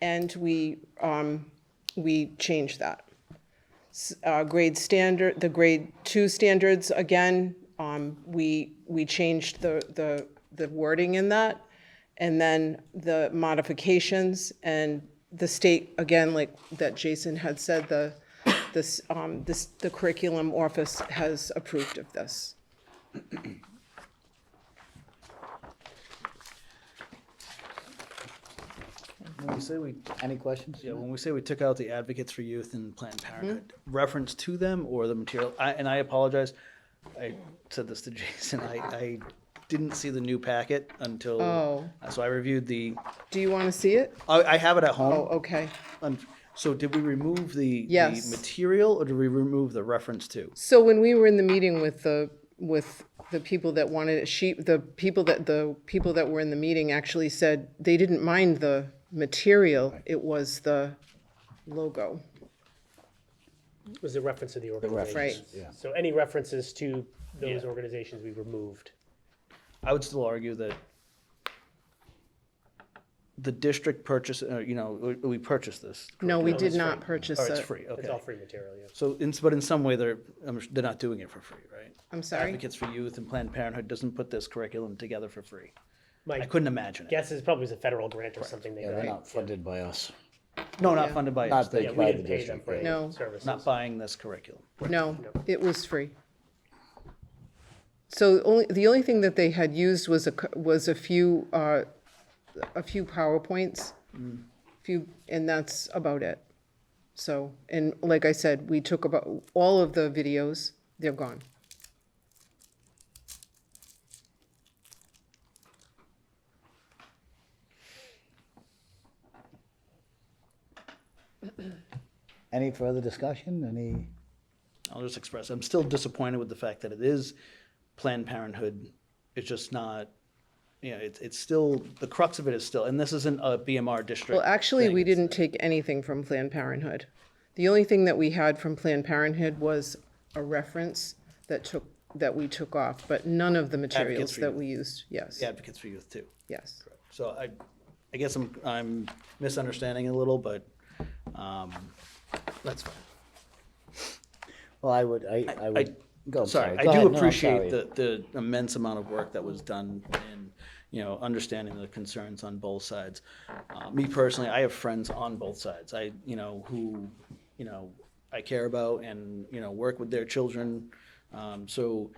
and we, um, we changed that. S- Uh, grade standard, the grade two standards, again, um, we, we changed the, the, the wording in that. And then the modifications and the state, again, like that Jason had said, the, this, um, this, the curriculum office has approved of this. When we say we, any questions? Yeah, when we say we took out the advocates for youth and Planned Parenthood, reference to them or the material, I, and I apologize. I said this to Jason, I, I didn't see the new packet until, Oh. so I reviewed the, Do you want to see it? I, I have it at home. Oh, okay. Um, So did we remove the, the Yes. material or did we remove the reference to? So when we were in the meeting with the, with the people that wanted, she, the people that, the people that were in the meeting actually said they didn't mind the material, it was the logo. was the reference to the reference, Right. organizations. So any references to those organizations we removed. I would still argue that the district purchase, uh, you know, we- we purchased this. No, we did curriculum. not purchase Or it's it. free, okay. It's all free material, yeah. So, in, but in some way, they're, I'm s- they're not doing it for free, right? I'm sorry? Advocates for Youth and Planned Parenthood doesn't put this curriculum together for free. I My couldn't imagine it. guess is probably was a federal grant or something they Yeah, they're got. not funded by us. No, not funded by us. Not the- Yeah, They're we by didn't the pay them district, for right. No. any services. not buying this curriculum. No, it was free. So only, the only thing that they had used was a, cou- was a few, uh, a few PowerPoints. Few, and that's about it. So, and like I said, we took about, all of the videos, they're gone. Any further discussion? Any, I'll just express, I'm still disappointed with the fact that it is Planned Parenthood. It's just not, you know, it's, it's still, the crux of it is still, and this isn't a BMR district. Well, actually, thing, we it's- didn't take anything from Planned Parenthood. The only thing that we had from Planned Parenthood was a reference that took, that we took off, but none of the materials for that Youth. we used, yes, the Advocates for Youth too. yes. So I, I guess I'm, I'm misunderstanding a little, but, um, that's fine. well, I would, I, I I, would. go, I'm sorry, Go I do ahead. No, I'm sorry. appreciate the, the immense amount of work that was done in, you know, understanding the concerns on both sides. Uh, Me personally, I have friends on both sides, I, you know, who, you know, I care about and, you know, work with their children. Um, So,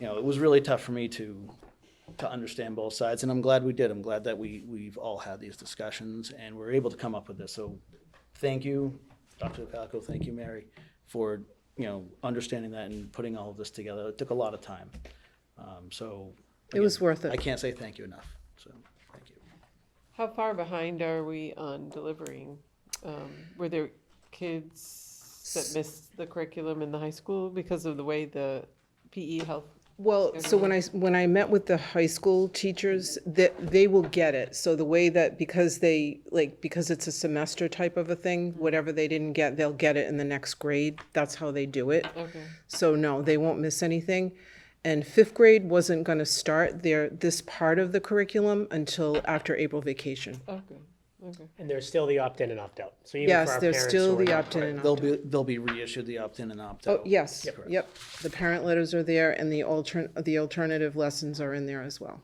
you know, it was really tough for me to, to understand both sides, and I'm glad we did. I'm glad that we, we've all had these discussions and we're able to come up with this. So thank you, Dr. Palco, thank you, Mary, for, you know, understanding that and putting all of this together. It took a lot of time. Um, So. It was worth it. I can't say thank you enough, so, thank you. How far behind are we on delivering? Um, were there kids that missed the curriculum in the high school because of the way the PE health? Well, so when I, when I met with the high school teachers, that, they will get it. So the way that, because they, like, because it's a semester type of a thing, whatever they didn't get, they'll get it in the next grade. That's how they do it. Okay. So no, they won't miss anything. And fifth grade wasn't gonna start their, this part of the curriculum until after April vacation. Okay. Okay. And there's still the opt-in and opt-out. So even for Yes, our there's parents still who are the not- opt-in and They'll opt-out. be, they'll be reissued the opt-in and opt-out. Oh, yes, correct. yep. The parent letters are there and the altern, the alternative lessons are in there as well.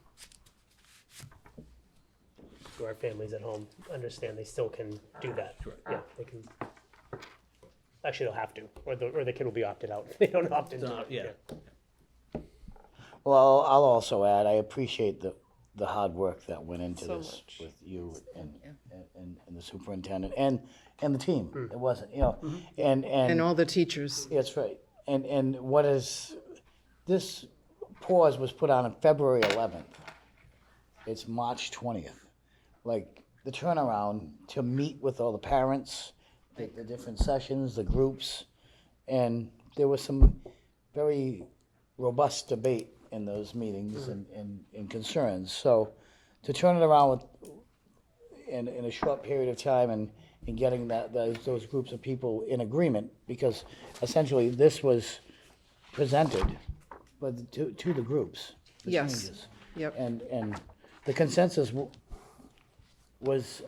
Who our families at home understand they still can Ah, do that. Yeah, they can. Actually, they'll have to, or the, or the kid will be opted out. They don't opt into Uh, it. Yeah, Well, I'll also add, I appreciate the, the hard work that went into So this much. with you and, and, and the superintendent and, and the team. Mm-hmm. It wasn't, you know, and, And and, all the teachers, that's right. And, and what is, this pause was put on on February eleventh. It's March twentieth. Like, the turnaround to meet with all the parents, the, the different sessions, the groups. And there was some very robust debate in those meetings and, and, and concerns. So to turn it around with, in, in a short period of time and, and getting that, those, those groups of people in agreement, because essentially this was presented, but to, to the groups. the Yes. changes. yep. And, and the consensus w- was